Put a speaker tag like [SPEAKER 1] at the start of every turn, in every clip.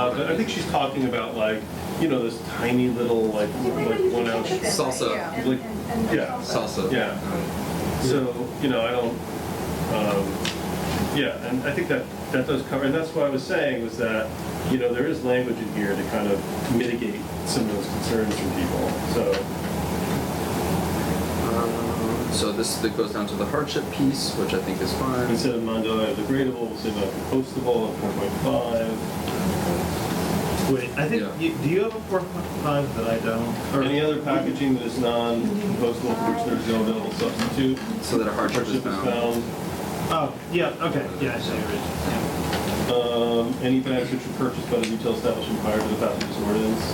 [SPEAKER 1] Uh, but I think she's talking about like, you know, this tiny little like, like one ounce.
[SPEAKER 2] Salsa.
[SPEAKER 1] Like, yeah.
[SPEAKER 2] Salsa.
[SPEAKER 1] Yeah. So, you know, I don't, um, yeah, and I think that, that does cover, and that's what I was saying was that, you know, there is language in here to kind of mitigate some of those concerns from people, so,
[SPEAKER 2] So this that goes down to the hardship piece, which I think is fine.
[SPEAKER 1] instead of mandala degradable, we'll say about compostable at four point five.
[SPEAKER 3] Wait, I think,
[SPEAKER 2] Yeah.
[SPEAKER 3] you, do you have a four point five that I don't?
[SPEAKER 1] Or any other packaging that is non-compostable for which there's no available substitute,
[SPEAKER 2] So that a hardship is
[SPEAKER 1] hardship is found.
[SPEAKER 2] found.
[SPEAKER 3] Oh, yeah, okay, yeah, I see your reason. Yeah.
[SPEAKER 1] Um, any bags which were purchased by the retail establishment prior to the passage of this ordinance.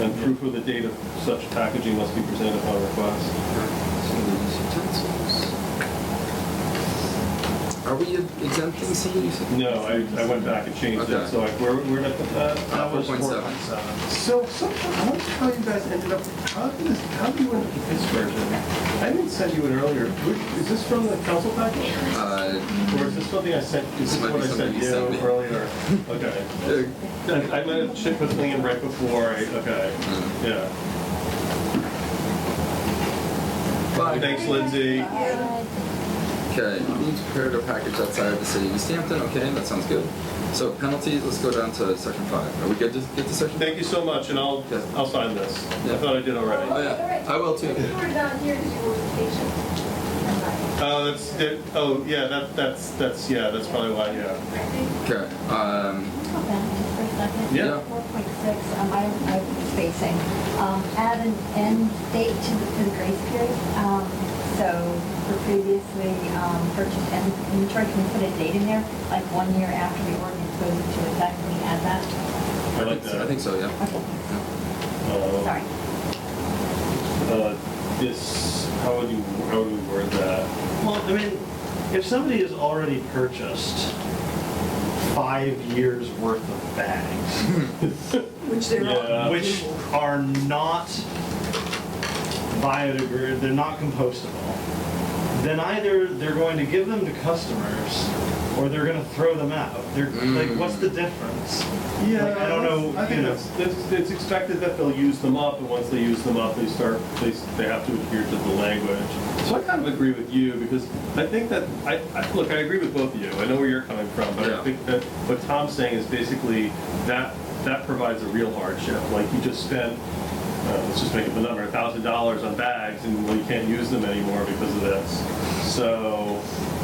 [SPEAKER 1] And proof of the date of such packaging must be presented upon request.
[SPEAKER 2] Some of these utensils. Are we exempting some of these?
[SPEAKER 1] No, I, I went back and changed it,
[SPEAKER 2] Okay. Uh,
[SPEAKER 1] so I, where, where did I put that?
[SPEAKER 3] That was
[SPEAKER 2] 4.7.
[SPEAKER 3] 4.7.
[SPEAKER 1] So, so, how much how you guys ended up, how did this, how do you end up with this version? I didn't send you an earlier, Which- is this from the council package?
[SPEAKER 2] Uh,
[SPEAKER 1] Or is this something I sent, is
[SPEAKER 2] This
[SPEAKER 1] this
[SPEAKER 2] might
[SPEAKER 1] what
[SPEAKER 2] be
[SPEAKER 1] I sent
[SPEAKER 2] something
[SPEAKER 1] you
[SPEAKER 2] you sent me.
[SPEAKER 1] earlier? Okay.
[SPEAKER 2] there-
[SPEAKER 1] I I might have checked with Liam right before, I- okay,
[SPEAKER 2] Mm.
[SPEAKER 1] yeah.
[SPEAKER 2] But,
[SPEAKER 1] Thanks, Lindsay.
[SPEAKER 2] okay, you need to prepare to package outside of the city of East Hampton, okay, that sounds good. So penalties, let's go down to section five. Are we good to get to section?
[SPEAKER 1] Thank you so much, and I'll,
[SPEAKER 2] Yeah.
[SPEAKER 1] I'll sign this. I
[SPEAKER 2] Yeah.
[SPEAKER 1] thought I did
[SPEAKER 2] Oh
[SPEAKER 1] already.
[SPEAKER 2] yeah, I will too.
[SPEAKER 4] You were not here because you were on vacation.
[SPEAKER 1] Uh, that's, that- oh, yeah, that, that's, that's, yeah, that's probably why, yeah.
[SPEAKER 2] Okay, um,
[SPEAKER 5] Go back just for a second.
[SPEAKER 1] Yeah.
[SPEAKER 2] Yeah.
[SPEAKER 5] 4.6, um, I, I was spacing, um, add an end date to the, to the grace period. Um, so for previously, um, purchased and inventory, can we put a date in there? Like one year after the ordinance goes into effect, can we add that?
[SPEAKER 1] I like
[SPEAKER 2] I
[SPEAKER 1] that.
[SPEAKER 2] think so, yeah.
[SPEAKER 5] Okay,
[SPEAKER 1] Uh,
[SPEAKER 5] sorry.
[SPEAKER 1] uh, This, how would you, how would we word that?
[SPEAKER 3] Well, I mean, if somebody has already purchased five years worth of bags,
[SPEAKER 6] Which they're
[SPEAKER 1] Yeah.
[SPEAKER 6] all.
[SPEAKER 3] which are not biodegradable, they're not compostable, then either they're going to give them to customers or they're gonna throw them out. They're, like, what's the difference? Like, I don't know,
[SPEAKER 1] I think
[SPEAKER 3] you know.
[SPEAKER 1] that's, that's, it's expected that they'll use them up, and once they use them up, they start, they, s- they have to adhere to the language. So I kind of agree with you, because I think that, I, I, look, I agree with both of you, I know where you're coming from, but I
[SPEAKER 2] Yeah.
[SPEAKER 1] think that what Tom's saying is basically, that, that provides a real hardship, like, you just spent, uh, let's just make up the number, a thousand dollars on bags, and well, you can't use them anymore because of this. So,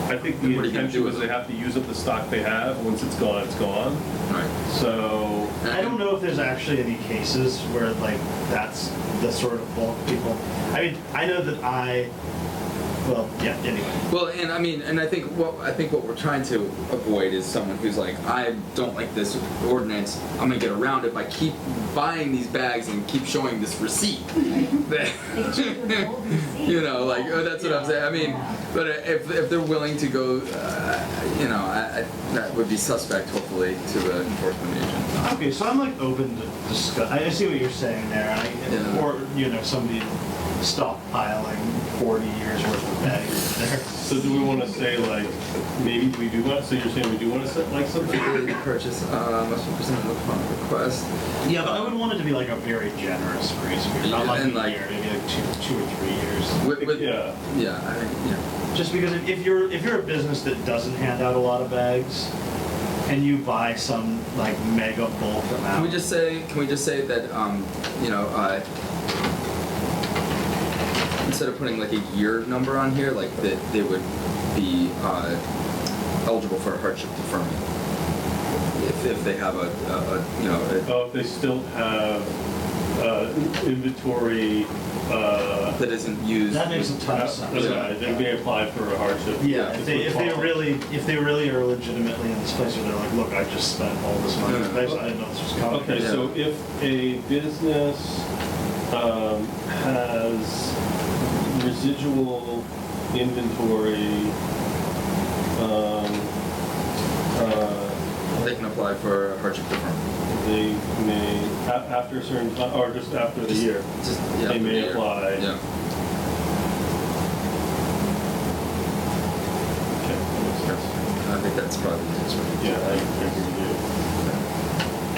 [SPEAKER 1] I think the
[SPEAKER 2] And what are you gonna
[SPEAKER 1] intention
[SPEAKER 2] do
[SPEAKER 1] was
[SPEAKER 2] with
[SPEAKER 1] they
[SPEAKER 2] them?
[SPEAKER 1] have to use up the stock they have, once it's gone, it's gone.
[SPEAKER 2] Right.
[SPEAKER 1] So,
[SPEAKER 3] I don't know if there's actually any cases where like that's the sort of bulk people. I mean, I know that I, well, yeah. Anyway,
[SPEAKER 2] Well, and I mean, and I think what I think what we're trying to avoid is someone who's like, I don't like this ordinance. I'm gonna get around it by keep buying these bags and keep showing this receipt. That-
[SPEAKER 5] They should withhold receipt.
[SPEAKER 2] you know, like oh, that's what I'm saying. I mean, but if if they're willing to go, uh, you know, I, I, that would be suspect, hopefully, to the enforcement agent.
[SPEAKER 3] okay. So I'm like open to discuss. I I see what you're saying there, I,
[SPEAKER 2] Yeah.
[SPEAKER 3] or you know, somebody stockpiling 40 years worth of bags there.
[SPEAKER 1] So do we want to say like, maybe we do want, so you're saying we do want to set like something?
[SPEAKER 2] Ability to purchase uh, must be presented upon request.
[SPEAKER 3] Yeah, but I would want it to be like a very generous grace period, not
[SPEAKER 2] Yeah,
[SPEAKER 3] like
[SPEAKER 2] and,
[SPEAKER 3] a
[SPEAKER 2] like-
[SPEAKER 3] year, maybe like two, two or three years.
[SPEAKER 2] With, with, yeah,
[SPEAKER 1] Yeah,
[SPEAKER 2] I think, yeah.
[SPEAKER 3] Just because if, if you're if you're a business that doesn't hand out a lot of bags, and you buy some like mega bulk amount,
[SPEAKER 2] Can we just say, can we just say that, um, you know, uh, instead of putting like a year number on here, like that they would be, uh, eligible for a hardship deferment? If, if they have a, a, a, you know, a-
[SPEAKER 1] oh, if they still have, uh, inventory, uh,
[SPEAKER 2] that isn't used.
[SPEAKER 3] That makes a ton of sense.
[SPEAKER 1] okay, they may apply for a hardship.
[SPEAKER 3] Yeah, if they,
[SPEAKER 1] This
[SPEAKER 3] if
[SPEAKER 1] would
[SPEAKER 3] they
[SPEAKER 1] fall.
[SPEAKER 3] really, if they really are legitimately in this place where they're like, look, I just spent all this money on this place, I didn't know this was coming.
[SPEAKER 1] Okay,
[SPEAKER 2] Yeah.
[SPEAKER 1] so if a business um, has residual inventory, um, uh,
[SPEAKER 2] They can apply for a hardship deferment.
[SPEAKER 1] they may, a- after a certain, ti- or just after the year.
[SPEAKER 2] Just, yeah.
[SPEAKER 1] They
[SPEAKER 2] for the
[SPEAKER 1] may
[SPEAKER 2] year.
[SPEAKER 1] apply.
[SPEAKER 2] Yeah.
[SPEAKER 1] Okay.
[SPEAKER 2] I think that's probably the easiest way.
[SPEAKER 1] Yeah, I agree.